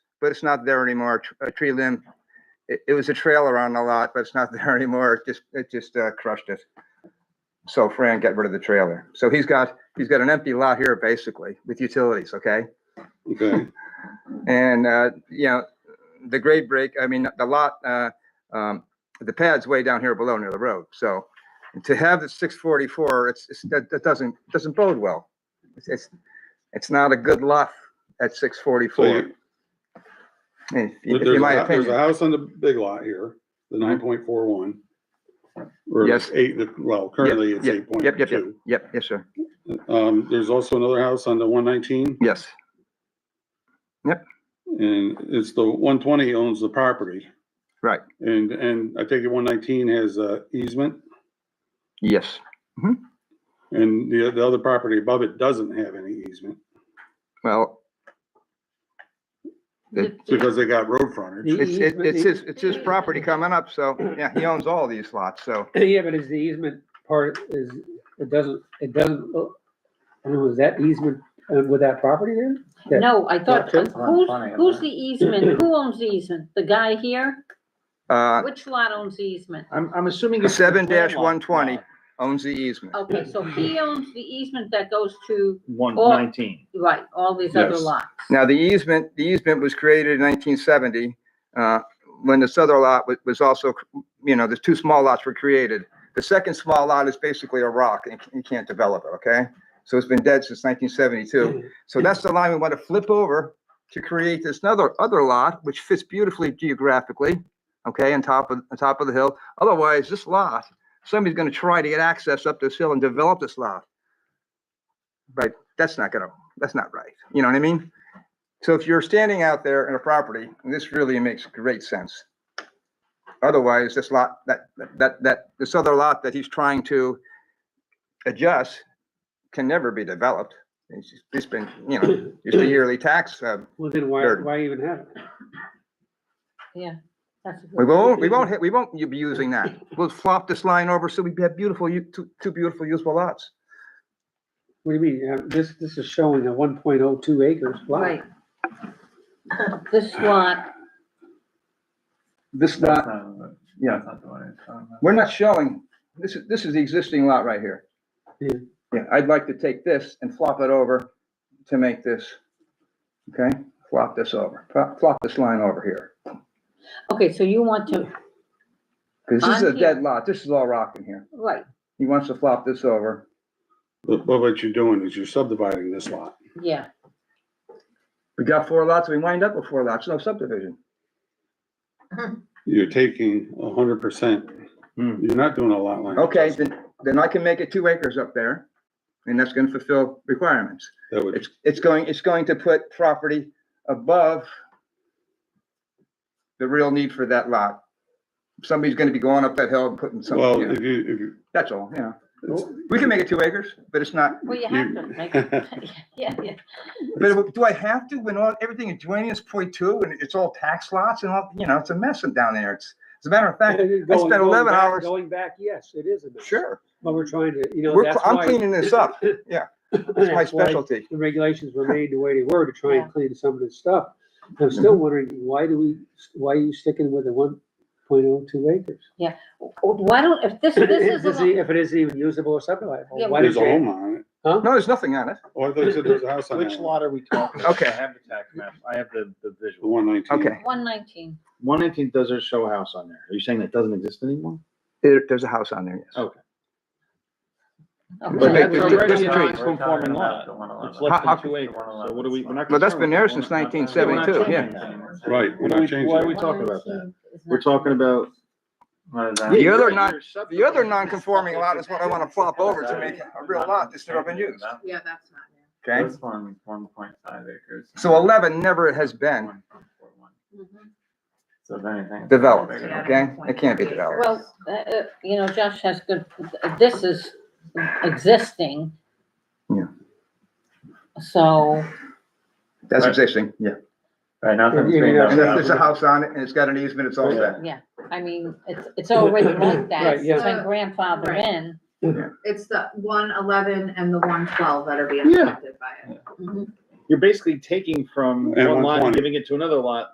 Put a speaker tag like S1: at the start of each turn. S1: but it's not there anymore. A tr- A tree limb, it, it was a trailer on the lot, but it's not there anymore. It just, it just uh, crushed it. So Fran got rid of the trailer. So he's got, he's got an empty lot here basically with utilities, okay?
S2: Okay,
S1: And, uh, you know, the grade break, I mean, the lot, uh, um, the pad's way down here below near the road. So to have the six forty-four, it's, it's, that, that doesn't, doesn't bode well. It's- It's, it's not a good lot at six
S2: so
S1: forty-four.
S2: you,
S1: In
S2: there's
S1: in my
S2: a, there's a
S1: opinion,
S2: house on the big lot here, the nine point four one. Or
S1: Yes.
S2: eight, well, currently it's
S1: yep,
S2: eight point
S1: yep, yep, yep,
S2: two.
S1: yep, yes, sir,
S2: Um, there's also another house on the one nineteen,
S1: yes.
S2: and it's the one twenty owns the property.
S1: Right.
S2: And, and I take it one nineteen has a easement,
S1: Yes,
S2: and the, the other property above it doesn't have any easement,
S1: well,
S3: The-
S2: because they got road frontage.
S1: it's, it-
S4: easement
S1: it's
S4: need-
S1: his, it's his property coming up, so, yeah, he owns all these lots, so,
S4: Yeah, but is the easement part is, it doesn't, it doesn't, uh, I don't know, is that easement uh, with that property there? Yeah.
S3: No, I thought,
S4: Yeah,
S3: who's,
S4: too.
S3: who's the easement? Who owns the easement? The guy here?
S1: uh,
S3: Which lot owns the easement?
S5: I'm, I'm assuming. it's the
S1: Seven dash
S5: landlocked
S1: one twenty
S5: lot, Oh.
S1: owns the easement.
S3: Okay, so he owns the easement that goes to,
S5: One
S3: Or-
S5: nineteen.
S3: right, all these other
S2: Yes.
S3: lots.
S1: Now, the easement, the easement was created in nineteen seventy, uh, when this other lot was, was also, you know, the two small lots were created. The second small lot is basically a rock and you can't develop it, okay? So it's been dead since nineteen seventy-two. So that's the line we want to flip over to create this another, other lot, which fits beautifully geographically, okay, on top of, on top of the hill. Otherwise, this lot, somebody's gonna try to get access up this hill and develop this lot. But that's not gonna, that's not right. You know what I mean? So if you're standing out there in a property, and this really makes great sense. Otherwise, this lot, that, that, that, this other lot that he's trying to adjust can never be developed. It's just, it's been, you know, just a yearly tax. uh,
S4: Well, then why,
S1: Garden.
S4: why even have it?
S3: That's a good-
S1: We won't, we won't, hit- we won't be using that. We'll flop this line over so we have beautiful, u- two, two beautiful usable lots.
S4: What do you mean? Uh, This, this is showing a one point oh two acres lot.
S3: Right. This lot,
S1: This
S5: Uh,
S1: lot, yeah.
S5: That's not the one um, I was talking
S1: We're not showing, this is, this is the existing lot right here.
S4: Yeah.
S1: Yeah, I'd like to take this and flop it over to make this, okay? Flop this over, flop, flop this line over here.
S3: okay, so you want to,
S1: Because this is a
S3: On here.
S1: dead lot, this is all rock in here.
S3: right,
S1: He wants to flop this over.
S2: But, but what you're doing is you're subdividing this lot.
S3: yeah,
S1: We got four lots, we wind up with four lots, no subdivision.
S2: You're taking a hundred percent. You're
S5: Hmm.
S2: not doing a lot line.
S1: Okay,
S2: adjustment.
S1: then, then I can make it two acres up there, and that's gonna fulfill requirements.
S2: That would,
S1: It's, it's going, it's going to put property above the real need for that lot. Somebody's gonna be going up that hill and putting some,
S2: well,
S1: you know,
S2: if you, if you,
S1: that's all, yeah.
S2: it's-
S1: We can make it two acres, but it's not,
S3: well, you have to make, it-
S2: you-
S3: yeah, yeah.
S1: but do I have to when all, everything adjoining is point two and it's all tax lots and all, you know, it's a mess down there. It's, as a matter of fact,
S4: I
S1: 11 hours-
S4: Going back, yes, it is a mess.
S1: sure,
S4: But we're trying to, you know,
S1: we're,
S4: that's
S1: I'm
S4: why.
S1: cleaning this up. Yeah, it's my
S4: that's why
S1: specialty.
S4: The regulations were made the way they were to try
S3: Yeah.
S4: and clean some of this stuff. I'm
S1: Mm-hmm.
S4: still wondering, why do we, why are you sticking with the one point oh two acres?
S3: Why don't, if this, this
S4: If
S3: is,
S4: it's
S3: a-
S4: e- if it isn't even usable or subdividable,
S3: Yeah,
S4: why
S2: There's
S4: did
S2: a
S4: you?
S2: home on it.
S1: No, there's nothing on it.
S2: Oh, I thought you said there's a house
S5: about.
S2: on
S5: Which
S2: that one.
S5: lot are we talking about?
S1: Okay.
S5: I have the tax map. I have the, the
S2: The
S5: visual.
S2: one nineteen.
S1: Okay.
S3: one nineteen,
S5: One nineteen does show a house on there. Are you saying that doesn't exist anymore?
S1: There- there's a house on there, yes.
S5: Oh.
S1: But
S3: okay,
S1: they- That's already a
S5: non-conforming lot. It's less
S1: How-
S5: than two acres. So what are we, we're not.
S1: Well, that's been
S5: concerned
S1: there
S5: with it.
S1: since
S5: We're not-
S1: nineteen
S5: we're not
S1: seventy-two, yeah.
S5: changing that.
S2: Right, we're
S5: What are we-
S2: not changing
S5: Why are we
S2: it.
S5: talking about
S3: 119
S5: that?
S3: is
S5: We're
S3: not-
S5: talking about.
S1: The
S5: Yeah,
S1: other
S5: you're-
S1: non- The
S5: you're
S1: other
S5: subdividing.
S1: non-conforming lot is what I want to flop over to make a real lot that's never been used,
S3: Yeah, that's not, it.
S1: okay?
S5: one, one point five acres.
S1: So eleven never has been
S3: Mhm.
S5: So if anything.
S1: developed, okay? It can't be developed.
S3: Well, uh, uh, you know, Josh has good, this is existing.
S1: Yeah.
S3: So,
S1: That's existing, yeah.
S5: Right, nothing's
S4: Yeah,
S5: being
S4: yeah,
S5: done.
S1: And there's, there's a house on it and it's got an easement, it's all set.
S3: yeah, I mean, it's, it's already like that,
S4: Right, yeah.
S3: it's been grandfathered
S6: Right.
S3: in.
S6: It's the one eleven and the one twelve that are being
S5: Yeah.
S6: affected by it.
S3: Mhm.
S5: You're basically taking from
S2: Um, And
S5: one lot
S2: 120.
S5: and giving it to another lot